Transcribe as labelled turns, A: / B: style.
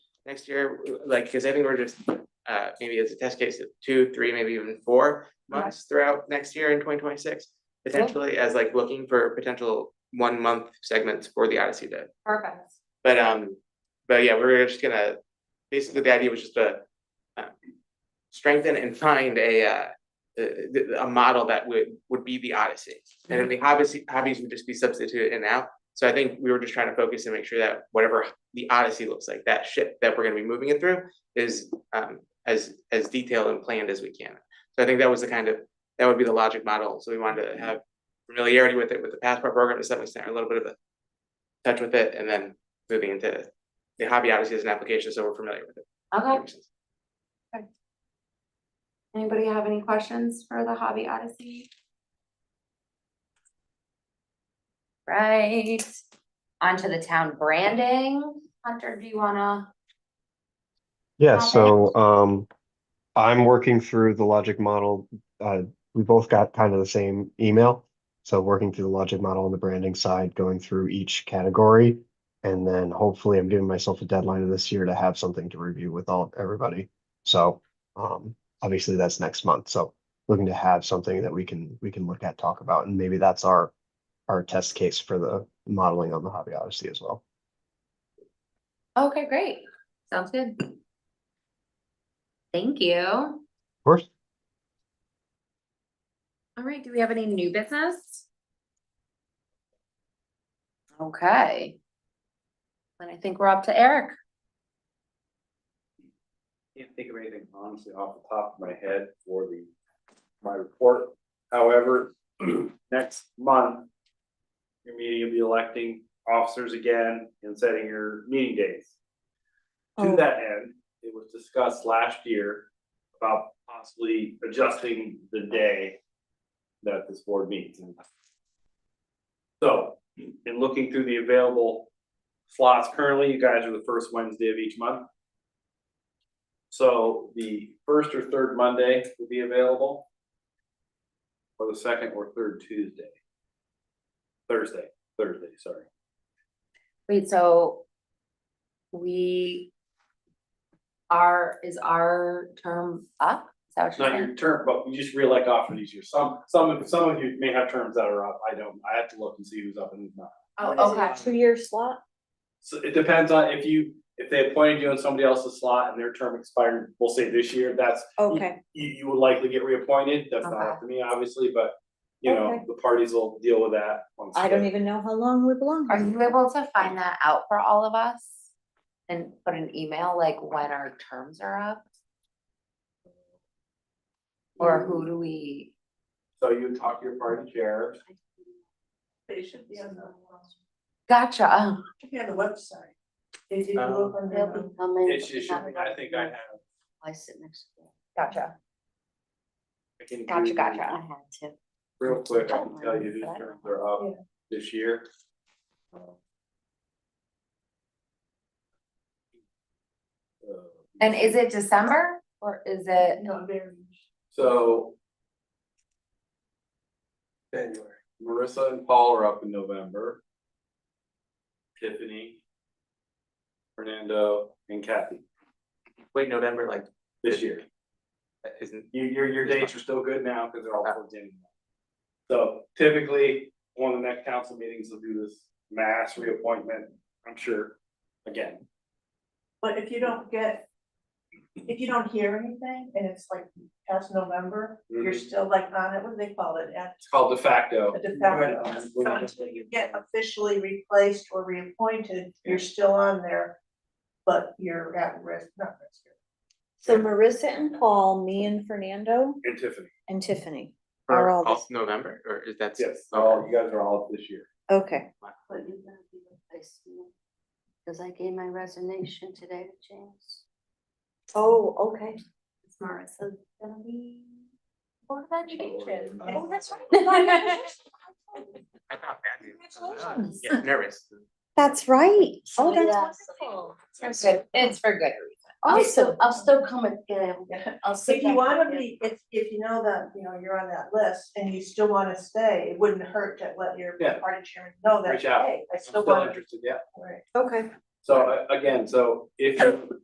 A: next year, like, because I think we're just, uh, maybe as a test case of two, three, maybe even four months throughout next year in twenty twenty-six, potentially as like looking for potential one-month segments for the Odyssey Day.
B: Perfect.
A: But um, but yeah, we were just gonna, basically the idea was just to. uh, Strengthen and find a uh, a a model that would would be the Odyssey. And then the hobbies, hobbies would just be substituted in and out. So I think we were just trying to focus and make sure that whatever the Odyssey looks like, that ship that we're gonna be moving it through is um as as detailed and planned as we can. So I think that was the kind of, that would be the logic model. So we wanted to have familiarity with it, with the passport program to some extent, or a little bit of a touch with it, and then moving into the hobby obviously is an application, so we're familiar with it.
B: Okay,
C: Oh.
B: anybody have any questions for the Hobby Odyssey? Right, onto the town branding. Hunter, do you wanna?
D: Yeah,
B: Got it.
D: so um, I'm working through the logic model. Uh, we both got kind of the same email. So working through the logic model on the branding side, going through each category. And then hopefully I'm giving myself a deadline this year to have something to review with all, everybody. So um, obviously that's next month. So looking to have something that we can, we can look at, talk about, and maybe that's our, our test case for the modeling on the Hobby Odyssey as well.
B: Okay, great, sounds good. Thank you.
D: Of course,
B: All right, do we have any new business? Okay. Then I think we're up to Eric.
E: Can't think of anything honestly off the top of my head for the, my report. However, next month. Your meeting, you'll be electing officers again and setting your meeting dates. To
B: Oh.
E: that end, it was discussed last year about possibly adjusting the day. That this board meets and. So, in looking through the available slots currently, you guys are the first Wednesday of each month. So the first or third Monday will be available. Or the second or third Tuesday. Thursday, Thursday, sorry.
B: Wait, so we are, is our term up? Is that what you're
E: Not
B: saying?
E: your term, but we just reelect off of these years. Some, some, some of you may have terms that are up. I don't, I have to look and see who's up and who's not.
B: Oh, okay.
C: Two-year slot?
E: So it depends on if you, if they appointed you in somebody else's slot and their term expired, we'll say this year, that's,
C: Okay,
E: you, you would likely get reappointed. That's not up to me, obviously, but you know,
C: Okay.
E: the parties will deal with that. once
C: I don't e-
E: they-
C: even know how long we belong.
B: Are you able to find that out for all of us? And put an email like when our terms are up? Or who do we?
E: So you talk to your party chair,
F: They should be on the,
B: Gotcha.
F: should be on the website. They did
E: Oh.
A: Um,
F: look on their own.
E: it's just, I think I have,
C: I sit next to them.
B: Gotcha,
E: I can.
B: gotcha,
E: do
C: I
B: gotcha.
C: had to.
E: Real quick, I
B: Oh,
E: can tell you whose terms are up this year. Uh,
B: And is it December or is it?
F: No, they're-
E: So. January, Marissa and Paul are up in November. Tiffany. Fernando and Kathy,
A: Wait, November, like,
E: this year.
A: isn't,
E: Your, your, your dates are still good now because they're all plugged in. So typically, one of the next council meetings will do this mass reappointment, I'm sure, again.
F: But if you don't get, if you don't hear anything and it's like past November, you're
E: Mhm.
F: still like on it, what do they call it, at
E: It's called de facto.
F: a de facto. So until you get officially replaced or reappointed, you're still on there, but you're at risk, not risk.
C: So Marissa and Paul, me and Fernando
E: And Tiffany.
C: and Tiffany. Are
A: or
C: all
A: all
C: this-
A: November, or is that?
E: Yes,
A: Okay.
E: all, Oh, you guys are all up this year.
C: Okay,
G: But you're gonna be replaced me, cause I gave my resignation today to James.
C: oh, okay.
G: It's Marissa gonna be.
B: What about changes?
E: Oh,
B: that's right.
A: I thought that. Congratulations. Yeah, nervous.
C: That's right. Oh,
G: Yeah,
C: that's
G: so-
C: wonderful.
B: It's for good- it's for good reason.
G: I'll still, I'll still come and get him,
F: Yeah.
G: I'll sit
F: If you
G: back
F: wanna
G: with him.
F: be, if, if you know that, you know, you're on that list and you still wanna stay, it wouldn't hurt to let your
E: Yeah.
F: party chairman know that,
E: Reach out.
F: hey, I
E: I'm
F: still
E: still
F: wanna.
E: interested, yeah.
F: Right.
C: Okay.
E: So uh, again, so if you